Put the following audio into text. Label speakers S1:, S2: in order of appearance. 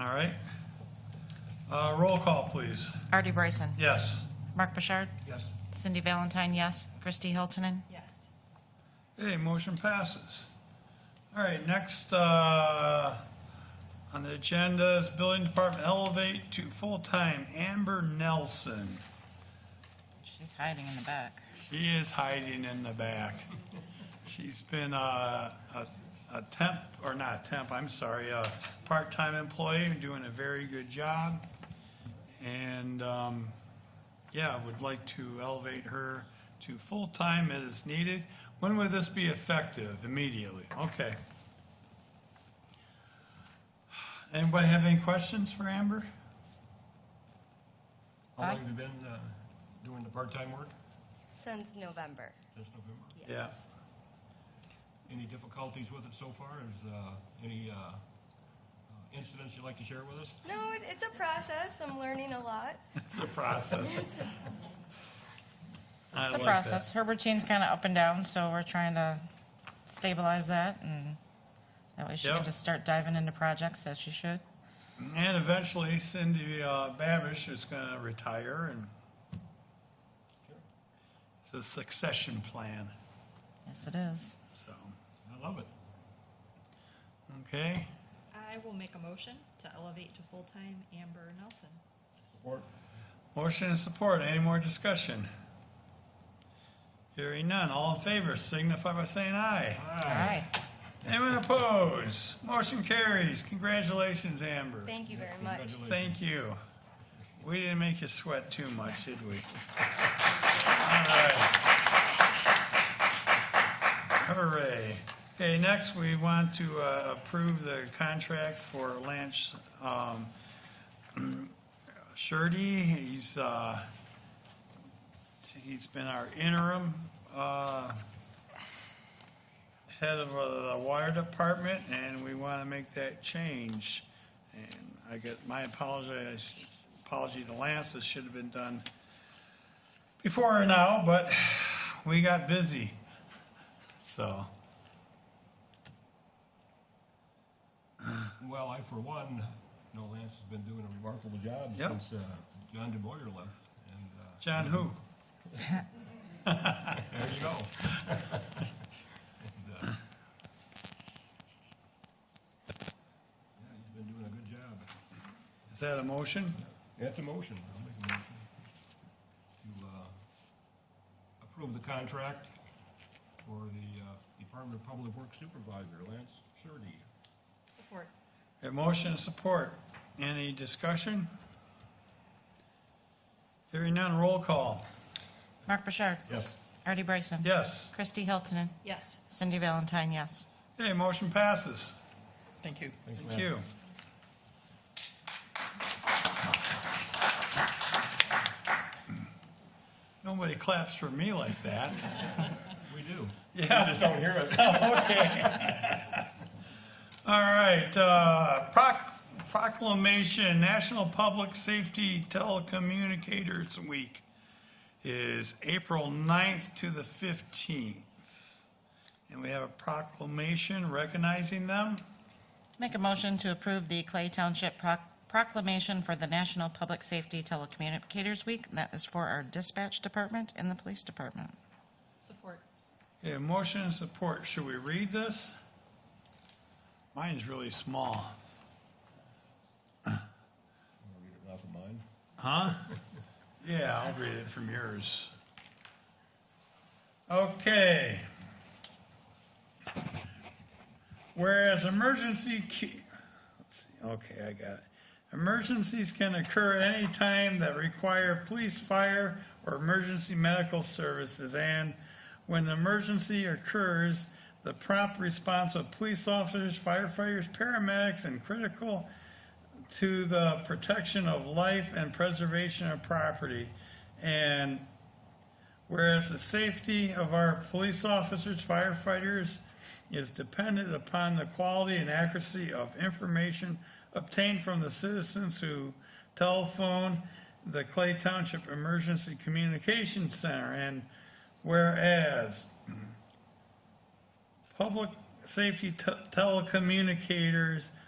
S1: All right. Uh, Roll call, please.
S2: Artie Bryson.
S1: Yes.
S2: Mark Bouchard.
S3: Yes.
S2: Cindy Valentine, yes. Christy Hiltonen.
S4: Yes.
S1: Okay, motion passes. All right, next uh, on the agenda is Building Department Elevate to Full-Time Amber Nelson.
S2: She's hiding in the back.
S1: She is hiding in the back. She's been uh, a a temp, or not a temp, I'm sorry, a part-time employee, doing a very good job. And, um, yeah, would like to elevate her to full-time as needed. When would this be effective? Immediately, okay. Anybody have any questions for Amber?
S3: How long have you been uh, doing the part-time work?
S4: Since November.
S3: Since November?
S1: Yeah.
S3: Any difficulties with it so far? Is uh, any uh, uh, incidents you'd like to share with us?
S4: No, it, it's a process. I'm learning a lot.
S1: It's a process. I
S2: It's a
S1: like that.
S2: process. Her routine's kind of up and down, so we're trying to stabilize that and that way she
S1: Yeah.
S2: can just start diving into projects as she should.
S1: And eventually Cindy uh, Babish is going to retire and it's a succession plan,
S2: Yes, it is.
S1: so,
S3: I love it.
S1: okay.
S5: I will make a motion to elevate to full-time Amber Nelson.
S3: Support.
S1: Motion and support, any more discussion? Hearing none, all in favor signify by saying aye.
S2: All right.
S1: Anyone opposed? Motion carries, congratulations Amber.
S4: Thank you very much.
S3: Congratulations.
S1: Thank you. We didn't make you sweat too much, did we? All right. Hooray. Okay, next, we want to uh, approve the contract for Lance um, Shirty. He's, uh, he's been our interim uh, head of uh, the water department, and we want to make that change. And I get, my apologies, apology to Lance, this should have been done before or now, but we got busy, so.
S3: Well, I, for one, know Lance has been doing a remarkable job
S1: Yep.
S3: since uh, John DeBoyer left. And uh,
S1: John who?
S3: there you go. And, uh, Yeah, he's been doing a good job.
S1: Is that a motion?
S3: That's a motion. I'll make a motion to uh, approve the contract for the uh, Department of Public Works Supervisor, Lance Shurdy.
S5: Support.
S1: A motion and support. Any discussion? Hearing none, roll call.
S2: Mark Bouchard.
S3: Yes.
S2: Artie Bryson.
S1: Yes.
S2: Christy Hiltonen.
S5: Yes.
S2: Cindy Valentine, yes.
S1: Okay, motion passes.
S6: Thank you.
S1: Thank you. Nobody claps for me like that.
S3: We do.
S1: Yeah.
S3: Just don't hear it.
S1: All right, uh, proc- proclamation, National Public Safety Telecommunicators Week is April 9th to the 15th. And we have a proclamation recognizing them.
S2: Make a motion to approve the Clay Township proc- proclamation for the National Public Safety Telecommunicators Week. and That is for our dispatch department and the police department.
S5: Support.
S1: Okay, motion and support, should we read this? Mine's really small.
S3: I'll read it off of mine.
S1: Huh? Yeah, I'll read it from yours. Okay. Whereas emergency, ca- let's see, okay, I got it. Emergencies can occur at any time that require police, fire, or emergency medical services, and when an emergency occurs, the prompt response of police officers, firefighters, paramedics, and critical to the protection of life and preservation of property. And whereas the safety of our police officers, firefighters is dependent upon the quality and accuracy of information obtained from the citizens who telephone the Clay Township Emergency Communications Center. And whereas Public safety te- telecommunicators